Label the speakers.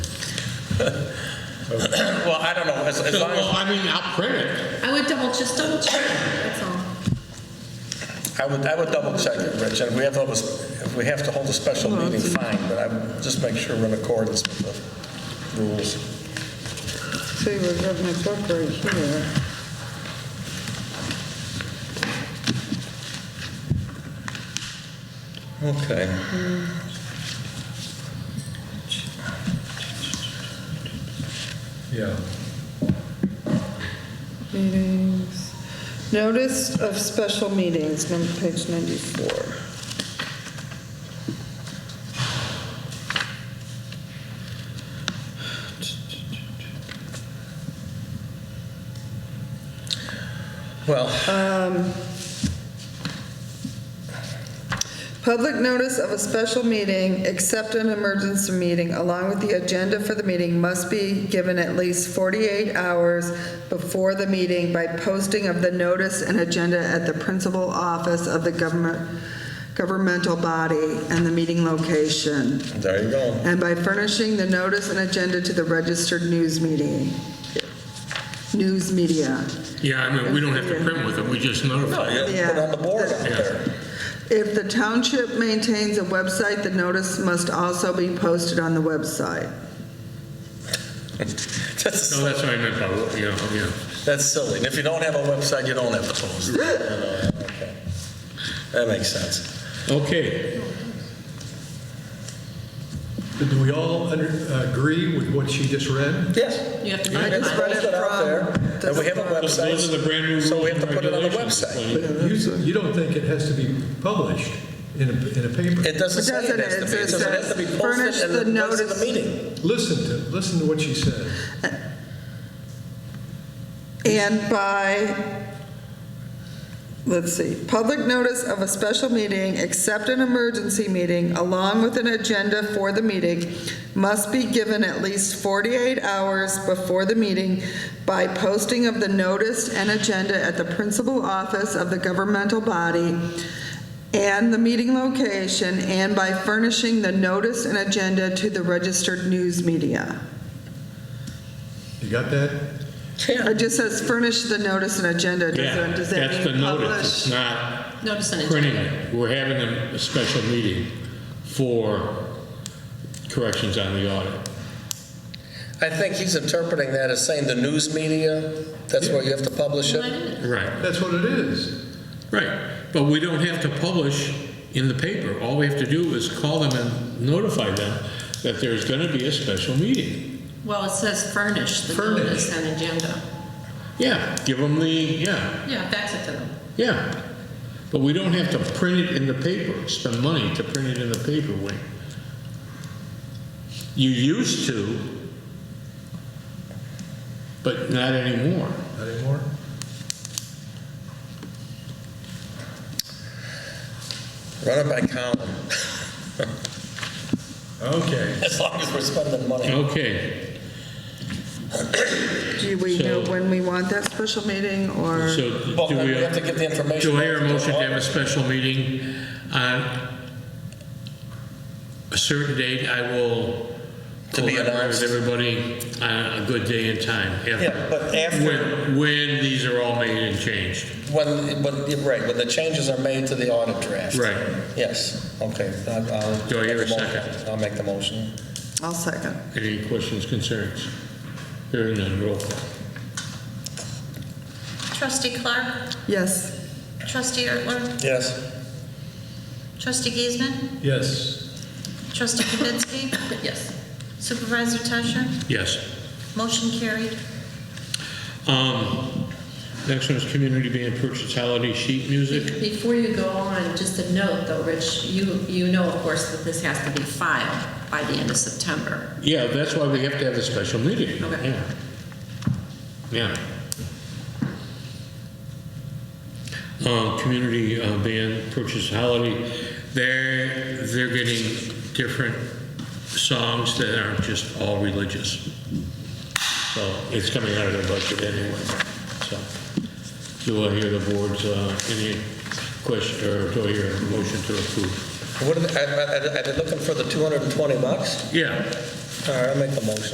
Speaker 1: Well, I don't know, as, as long
Speaker 2: Well,
Speaker 1: as,
Speaker 2: I mean, I'll print it.
Speaker 3: I would double, just double check, that's all.
Speaker 1: I would, I would double check it, Rich, and if we have to, have a s- if we have to hold a special meeting, fine, but I would just make sure we're in accordance with the rules.
Speaker 4: See, we've got my book right here.
Speaker 1: Okay.
Speaker 5: Yeah.
Speaker 4: Meetings. Notice of special meetings, num- page 94.
Speaker 1: Well,
Speaker 4: Public notice of a special meeting, except an emergency meeting, along with the agenda for the meeting, must be given at least 48 hours before the meeting by posting of the notice and agenda at the principal office of the government, governmental body and the meeting location,
Speaker 1: there you go.
Speaker 4: and by furnishing the notice and agenda to the registered news meeting, news media.
Speaker 2: Yeah, I mean, we don't have to print with it, we just
Speaker 1: No,
Speaker 2: notify.
Speaker 1: you put it on the board up there.
Speaker 4: If the township maintains a website, the notice must also be posted on the website.
Speaker 1: That's,
Speaker 2: No, Oh, that's what I meant by, yeah, yeah.
Speaker 1: that's silly, and if you don't have a website, you don't have to post it. You know, okay. That makes sense.
Speaker 2: Okay,
Speaker 5: Do we all under- uh, agree with what she just read?
Speaker 1: Yes.
Speaker 3: You have to
Speaker 4: I
Speaker 3: find
Speaker 4: just
Speaker 3: time.
Speaker 4: read
Speaker 1: Post
Speaker 4: it
Speaker 1: it out there,
Speaker 4: from.
Speaker 1: and we have a
Speaker 2: those
Speaker 1: website.
Speaker 2: those are the brand new rules
Speaker 1: So we have
Speaker 2: and
Speaker 1: to put it on the
Speaker 2: regulations.
Speaker 1: website.
Speaker 2: Like,
Speaker 5: But you you don't think it has to be published in a, in a paper?
Speaker 1: It doesn't
Speaker 4: It
Speaker 1: say it
Speaker 4: doesn't.
Speaker 1: has to be,
Speaker 4: It
Speaker 1: it
Speaker 4: says
Speaker 1: doesn't have to be
Speaker 4: furnish
Speaker 1: posted in
Speaker 4: the
Speaker 1: the place of
Speaker 4: notice.
Speaker 1: the meeting.
Speaker 5: Listen to, listen to what she said.
Speaker 4: And by, let's see, public notice of a special meeting, except an emergency meeting, along with an agenda for the meeting, must be given at least 48 hours before the meeting by posting of the notice and agenda at the principal office of the governmental body and the meeting location, and by furnishing the notice and agenda to the registered news media.
Speaker 5: You got that?
Speaker 4: It just says furnish the notice and agenda. Does
Speaker 2: Yeah,
Speaker 4: that- Does that
Speaker 2: that's the
Speaker 4: mean
Speaker 2: notice, it's
Speaker 4: publish?
Speaker 2: not
Speaker 3: Notice and
Speaker 2: printing it. We're having a a special meeting for corrections on the audit.
Speaker 1: I think he's interpreting that as saying the news media, that's where you have to publish it.
Speaker 3: agenda.
Speaker 2: Right,
Speaker 5: That's what it is.
Speaker 2: right. But we don't have to publish in the paper. All we have to do is call them and notify them that there's going to be a special meeting.
Speaker 3: Well, it says furnish, the
Speaker 5: Furnish.
Speaker 3: notice and agenda.
Speaker 2: Yeah, give them the, yeah,
Speaker 3: Yeah, fax it to them.
Speaker 2: Yeah, but we don't have to print it in the paper, spend money to print it in the paper, Wayne. You used to, but not anymore.
Speaker 5: Not anymore?
Speaker 1: Run it by Colin,
Speaker 5: Okay.
Speaker 1: as long as we're spending money.
Speaker 2: Okay,
Speaker 4: Do we know
Speaker 2: So-
Speaker 4: when we want that special meeting, or?
Speaker 2: so
Speaker 1: Well,
Speaker 2: do
Speaker 1: then
Speaker 2: we,
Speaker 1: we have to get the information
Speaker 2: do I hear a
Speaker 1: back to the
Speaker 2: motion to have
Speaker 1: lawyer.
Speaker 2: a special meeting on a certain date? I will
Speaker 1: To be
Speaker 2: collaborate
Speaker 1: announced.
Speaker 2: with everybody on a good day and time. after-
Speaker 1: Yeah, but after-
Speaker 2: When, when these are all made and changed.
Speaker 1: When, when, you're right, when the changes are made to the audit draft.
Speaker 2: Right.
Speaker 1: Yes, okay. I- I'll
Speaker 2: Do I hear a
Speaker 1: make motion.
Speaker 2: second?
Speaker 1: I'll make the motion.
Speaker 4: I'll second.
Speaker 2: Any questions, concerns? Hearing none, roll call.
Speaker 6: Trustee Clark,
Speaker 4: Yes.
Speaker 6: trustee Ertler,
Speaker 1: Yes.
Speaker 6: trustee Giesman,
Speaker 5: Yes.
Speaker 6: trustee Kibitsky,
Speaker 3: Yes.
Speaker 6: supervisor Tusher,
Speaker 2: Yes.
Speaker 6: motion carried.
Speaker 2: Um, Next one is community band purchase holiday sheet music.
Speaker 3: Before you go on, just a note though, Rich, you, you know, of course, that this has to be filed by the end of September.
Speaker 2: Yeah, that's why we have to have a special meeting.
Speaker 3: Okay.
Speaker 2: Yeah. Yeah. Um, Community uh, band purchase holiday, they're, they're getting different songs that aren't just all religious. So it's coming out of their budget anyway, so. Do I hear the board's, uh, any question, or do I hear a motion to approve?
Speaker 1: What, are they- are are- are they looking for the 220 bucks?
Speaker 2: Yeah.
Speaker 1: All right, I'll make the motion.